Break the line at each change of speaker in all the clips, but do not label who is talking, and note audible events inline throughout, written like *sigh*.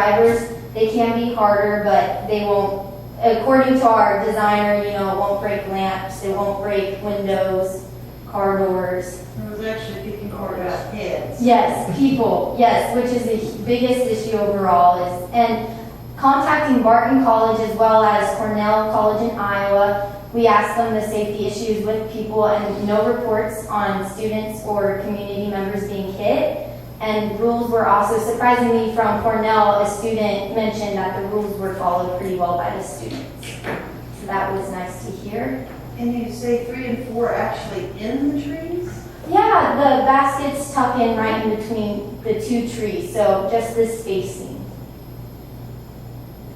drivers, they can be harder, but they won't, according to our designer, you know, it won't break lamps, it won't break windows, car doors.
It was actually kicking hard out heads.
Yes, people, yes, which is the biggest issue overall is, and contacting Barton College as well as Cornell College in Iowa, we asked them the safety issues with people and no reports on students or community members being hit. And rules were also surprisingly from Cornell, a student mentioned that the rules were followed pretty well by the students. So that was nice to hear.
And you say three and four actually in the trees?
Yeah, the baskets tuck in right in between the two trees, so just this spacing.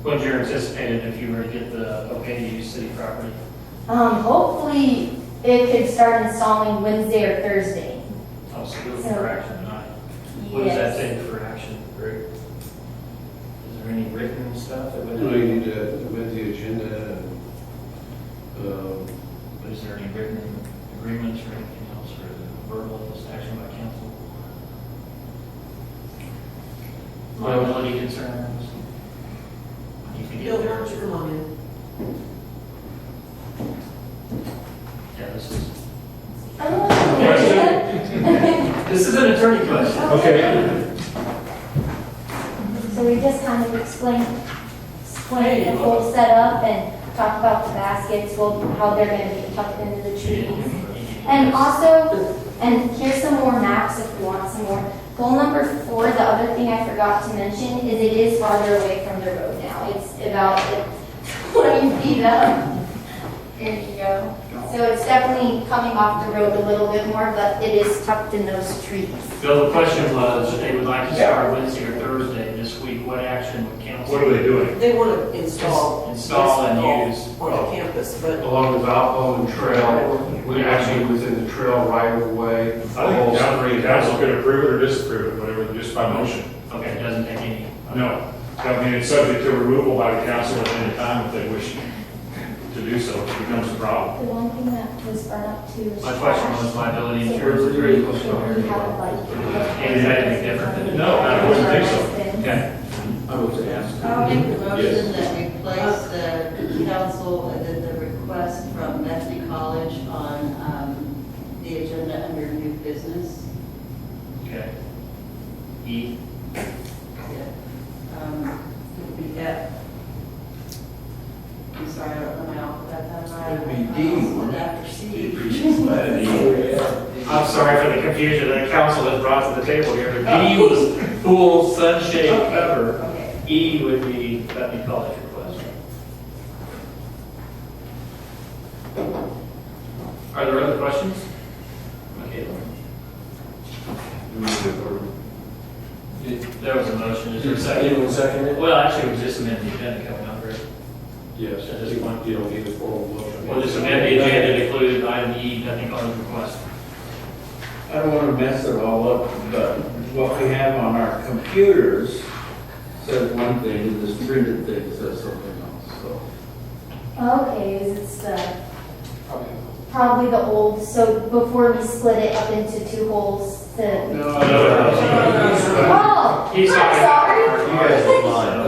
What's your anticipated if you were to get the okay to use city property?
Um, hopefully it could start installing Wednesday or Thursday.
Also, good for action tonight. What does that
Yes.
say for action, Rick? Is there any written stuff that
No, you
would,
need to amend the agenda and, um,
is there any written agreements or anything else, or is it verbal just action by council? Liability concerns? You can get there. Yeah, this is,
Um,
this is an attorney question.
Okay.
So we just kind of explain, explain the whole setup and talk about the baskets, well, how they're gonna be tucked into the trees. And also, and here's some more maps if you want some more. Goal number four, the other thing I forgot to mention is it is farther away from the road now. It's about *laughs* twenty feet up. There you go. So it's definitely coming off the road a little bit more, but it is tucked in those trees.
Bill, the question was, they would like to start Wednesday or Thursday this week, what action would council?
What are they doing?
They want to install.
Install and
bicycle
use.
On the campus, but
along the Valpo Trail, we actually within the trail right of way.
I think the council could approve it or disapprove it, whatever, just by motion.
Okay, it doesn't take any.
No, I mean, it's subject to removal by the council at any time if they wish to do so, it becomes a problem.
The one thing that was brought up too is.
My question was liability insurance.
We have a bike.
Is that any different?
No, I wouldn't think so.
Okay,
Oh, I was asked.
I'll make the motion that we place the council, and then the request from Bethany College on um, the agenda under new business.
okay. E,
Um, It would be F. I'm sorry, I don't know my alphabet that right.
It'd be D, wouldn't it?
After C.
I'm sorry for the confusion that council has brought to the table here. D was pool, sunshade, cover.
Okay.
E would be Bethany College request. Are there other questions? Okay, there was a motion, is there a second? Well, actually, it was just amended the agenda coming up, right?
Yes, at this point, you don't need a formal motion.
Well, this amended the agenda included item E, Bethany College request.
I don't want to mess it all up, but what we have on our computers says one thing, and this printed thing says something else, so.
Okay, is it's the, probably the old, so before we split it up into two holes, the. Oh, I'm
He's
sorry.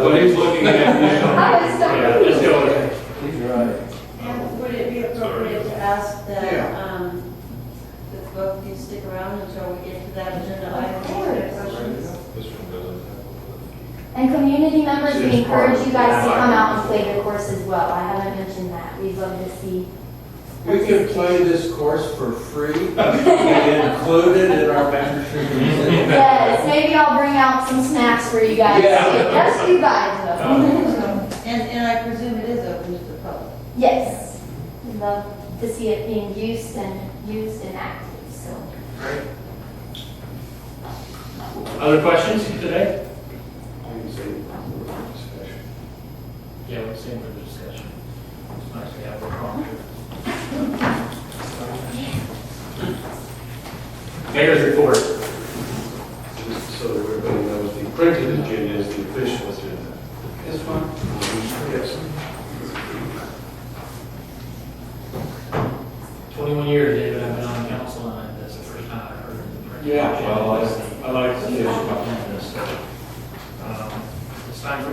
What he's looking at now.
I was
Yeah,
sorry.
let's go with it.
He's right.
And would it be appropriate to ask that, um, that both of you stick around until we get to that agenda item?
Of course.
Questions?
And community members, we
It's
encourage
part
you
of
guys to
the-
come out and play the course as well. I haven't mentioned that. We'd love to see.
We could play this course for free, and include it in our membership. *laughs*
Yes, maybe I'll bring out some snacks for you guys.
Yeah.
Just you guys though.
And, and I presume it is open to the public.
Yes, we'd love to see it being used and used and active, so.
Other questions today?
I can say it before the discussion.
Yeah, we're seeing the discussion. It's nice to have
*laughs*
a prompt. Mayor's report.
Just so that everybody knows, the printed agenda is the official agenda.
This one?
Yes.
21 years, David, I've been on council, and that's the first time I've heard of the.
Yeah, well, I- I like to hear about
Um, It's It's time for